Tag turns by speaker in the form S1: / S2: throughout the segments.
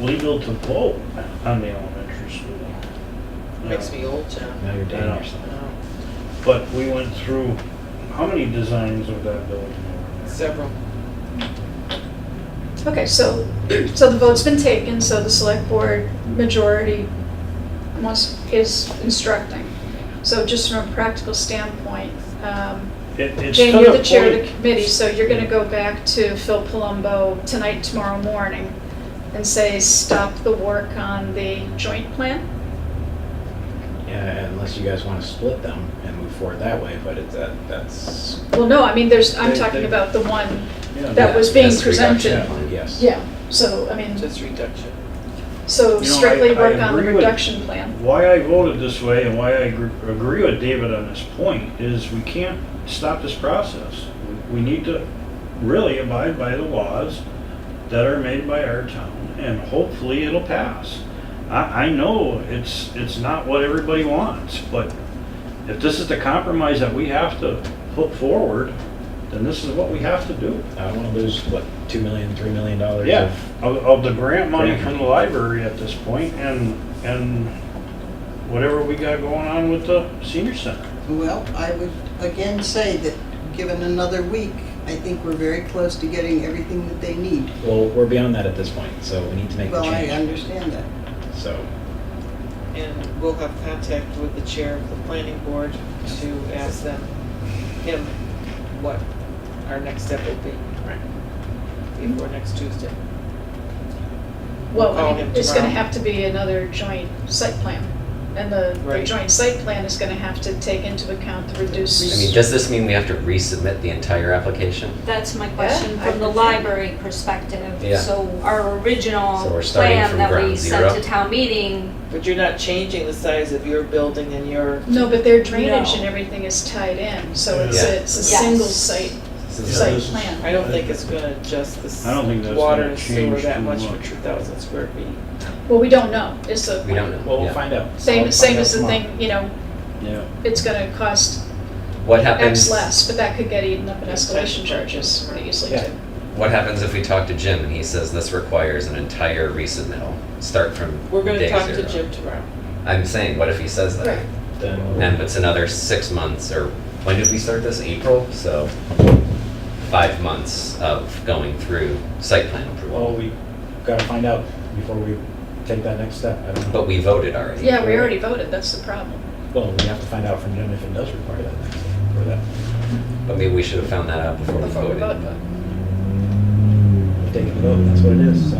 S1: legal to vote on the elementary school.
S2: Makes me old, John. Uh,
S3: Now you're
S1: I know.
S3: dating yourself.
S2: No,
S1: But we went through, how many designs of that building? were there?
S2: Several.
S4: Okay, so, so the vote's been taken, so the select board majority wants, is instructing. So just from a practical standpoint, um,
S1: It- it's
S4: Jane,
S1: to
S4: you're the chair of the
S1: point-
S4: committee, so you're gonna go back to Phil Palumbo tonight, tomorrow morning, and say, stop the work on the joint plan?
S3: Yeah, unless you guys want to split them and move forward that way, but it's, that, that's.
S4: Well, no, I mean, there's, I'm
S1: They-
S4: talking
S1: they-
S4: about the one,
S1: Yeah,
S4: That was being
S3: that's the reduction
S4: presented.
S3: plan, Yes.
S4: yeah, so, I mean,
S2: Just reduction.
S4: so
S1: You know, I-
S4: strictly
S1: I
S4: work on the
S1: agree with-
S4: reduction plan.
S1: Why I voted this way and why I agree- agree with David on this point is we can't stop this process. We we need to really abide by the laws that are made by our town and hopefully it'll pass. I, I know it's, it's not what everybody wants, but if this is the compromise that we have to put forward, then this is what we have to do.
S3: I don't want to lose, what, two million, three million dollars?
S1: Yeah, of, of the grant money
S3: Grant.
S1: from the library at this point and, and whatever we got going on with the senior center.
S5: Well, I would again say that, given another week, I think we're very close to getting everything that they need.
S3: Well, we're beyond that at this point, so we need to make the
S5: Well, I
S3: change,
S5: understand that.
S3: so.
S2: And we'll have contact with the chair of the planning board to ask them, him, what our next step will be
S3: right.
S2: before next Tuesday.
S4: Well,
S2: Call
S4: I mean,
S2: him
S4: it's gonna
S2: tomorrow.
S4: have to be another joint site plan, and the, the
S2: Right.
S4: joint site plan is gonna have to take into account the
S6: I
S4: reduced.
S6: mean, does this mean we have to resubmit the entire application?
S7: That's my question,
S4: Yeah, I
S7: from the
S4: would think.
S7: library perspective.
S6: Yeah.
S7: So our original
S6: So we're starting
S7: plan
S6: from
S7: that we
S6: ground
S7: sent
S6: zero?
S7: to town meeting,
S2: But you're not changing the size of your building and your,
S4: No, but their drainage
S7: No.
S4: and everything is tied in, so it's
S6: Yeah.
S4: a, it's a
S7: Yes.
S4: single site,
S6: This is-
S4: site
S1: this is-
S4: plan.
S2: I don't think it's gonna adjust this
S1: I don't think that's
S2: water
S1: gonna
S2: and sewer
S1: change
S2: that
S1: too
S2: much for
S1: much.
S2: two thousand square feet.
S4: Well, we don't know, it's a.
S6: We don't know.
S3: Well, we'll
S6: Yeah.
S3: find out.
S4: Same,
S3: I'll
S4: same
S3: find out
S4: as the
S3: tomorrow.
S4: thing, you know,
S1: Yeah.
S4: it's gonna cost
S6: What happens?
S4: X less, but that could get eaten up in escalation charges pretty easily
S3: Yeah.
S4: too.
S6: What happens if we talk to Jim and he says this requires an entire resubmittal, start from day 0
S2: We're gonna talk to Jim tomorrow.
S6: I'm saying, what if he says that?
S4: Right.
S3: Then we'll-
S6: And it's another six months, or when did we start this? April, so five months of going through site plan
S3: Well,
S6: approval.
S3: we gotta find out before we take that next step. I don't know.
S6: But we voted already.
S4: Yeah, we already voted, that's the problem.
S3: Well, we have to find out from Jim if it does require that next step or that.
S6: But maybe we should have found that out before we
S4: Before we
S6: voted.
S4: vote.
S6: but-
S3: We're Taking the vote, that's what it is, so.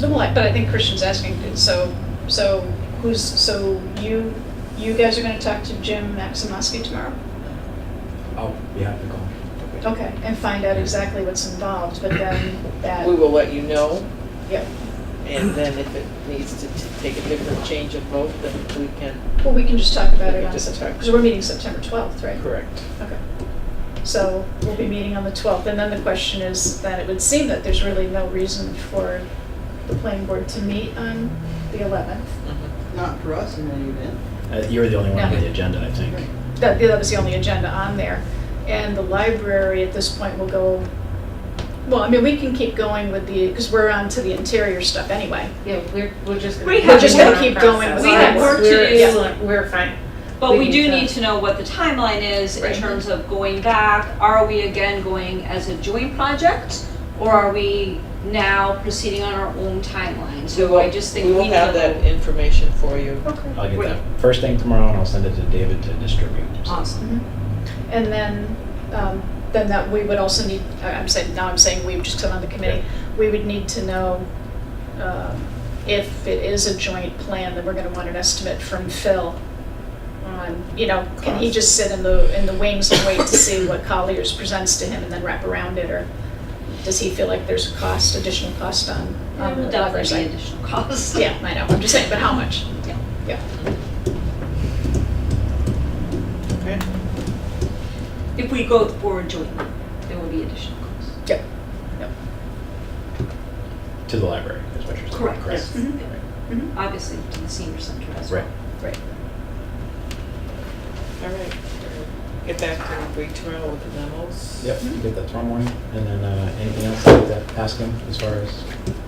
S4: No, well, I- but I think Christian's asking, so, so who's, so you, you guys are gonna talk to Jim Maximowski tomorrow?
S3: I'll be happy to call.
S4: Okay, and find out exactly what's involved, but then that,
S2: We will let you know.
S4: yeah,
S2: And then if it needs to t- take a different change of vote, then we can.
S4: well, we can just talk about
S2: We
S4: it
S2: can
S4: on
S2: just
S4: September,
S2: talk.
S4: because we're meeting September 12th, right?
S2: Correct.
S4: Okay. So we'll be meeting on the 12th, and then the question is that it would seem that there's really no reason for the planning board to meet on the 11th.
S2: Mm-hmm.
S5: Not for us in any event.
S3: Uh, you were the only one on
S4: No.
S3: the agenda, I think.
S4: That, that was the only agenda on there. And the library at this point will go, well, I mean, we can keep going with the, because we're on to the interior stuff anyway.
S8: Yeah, we're, we're just.
S7: We
S8: keep
S7: have
S8: going
S7: work
S8: on
S4: keep
S8: process.
S4: going.
S7: We have work to
S8: We're
S7: do.
S8: excellent. We're fine.
S7: but we do need to know what the timeline is in
S2: Right.
S7: terms of going back. Are we again going as a joint project? Or are we now proceeding on our own timeline? So I just think we
S2: will
S7: need
S2: have
S7: to
S2: that
S7: know.
S2: information for you.
S4: Okay.
S3: I'll get
S7: Wait.
S3: that first thing tomorrow and I'll send it to David to distribute.
S7: Awesome.
S4: Mm-hmm. And then, um, then that we would also need, I- I'm saying, now I'm saying we, just because I'm on the committee, we would need to know um, if it is a joint plan, then we're going to want an estimate from Phil on, you know, can he
S2: Cost.
S4: just sit in the, in the wings and wait to see what Colliers presents to him and then wrap around it? Or does he feel like there's a cost, additional cost on,
S7: That
S4: on the
S7: would
S4: library side?
S7: definitely be additional cost.
S4: Yeah, I know, I'm just saying, but how much?
S7: Yeah.
S4: Yeah.
S2: Okay.
S7: If we go forward jointly, there will be additional costs.
S3: To the library, is what you're saying.
S7: Correct.
S3: Correct.
S4: Mhm. Mhm.
S7: Obviously, to the senior center as well.
S3: Right.
S4: Right.
S2: All right. Get back to me tomorrow with the memos.
S7: Mm-hmm.
S3: Yep, get that tomorrow morning. And then uh, anything else I'd like to ask him as far as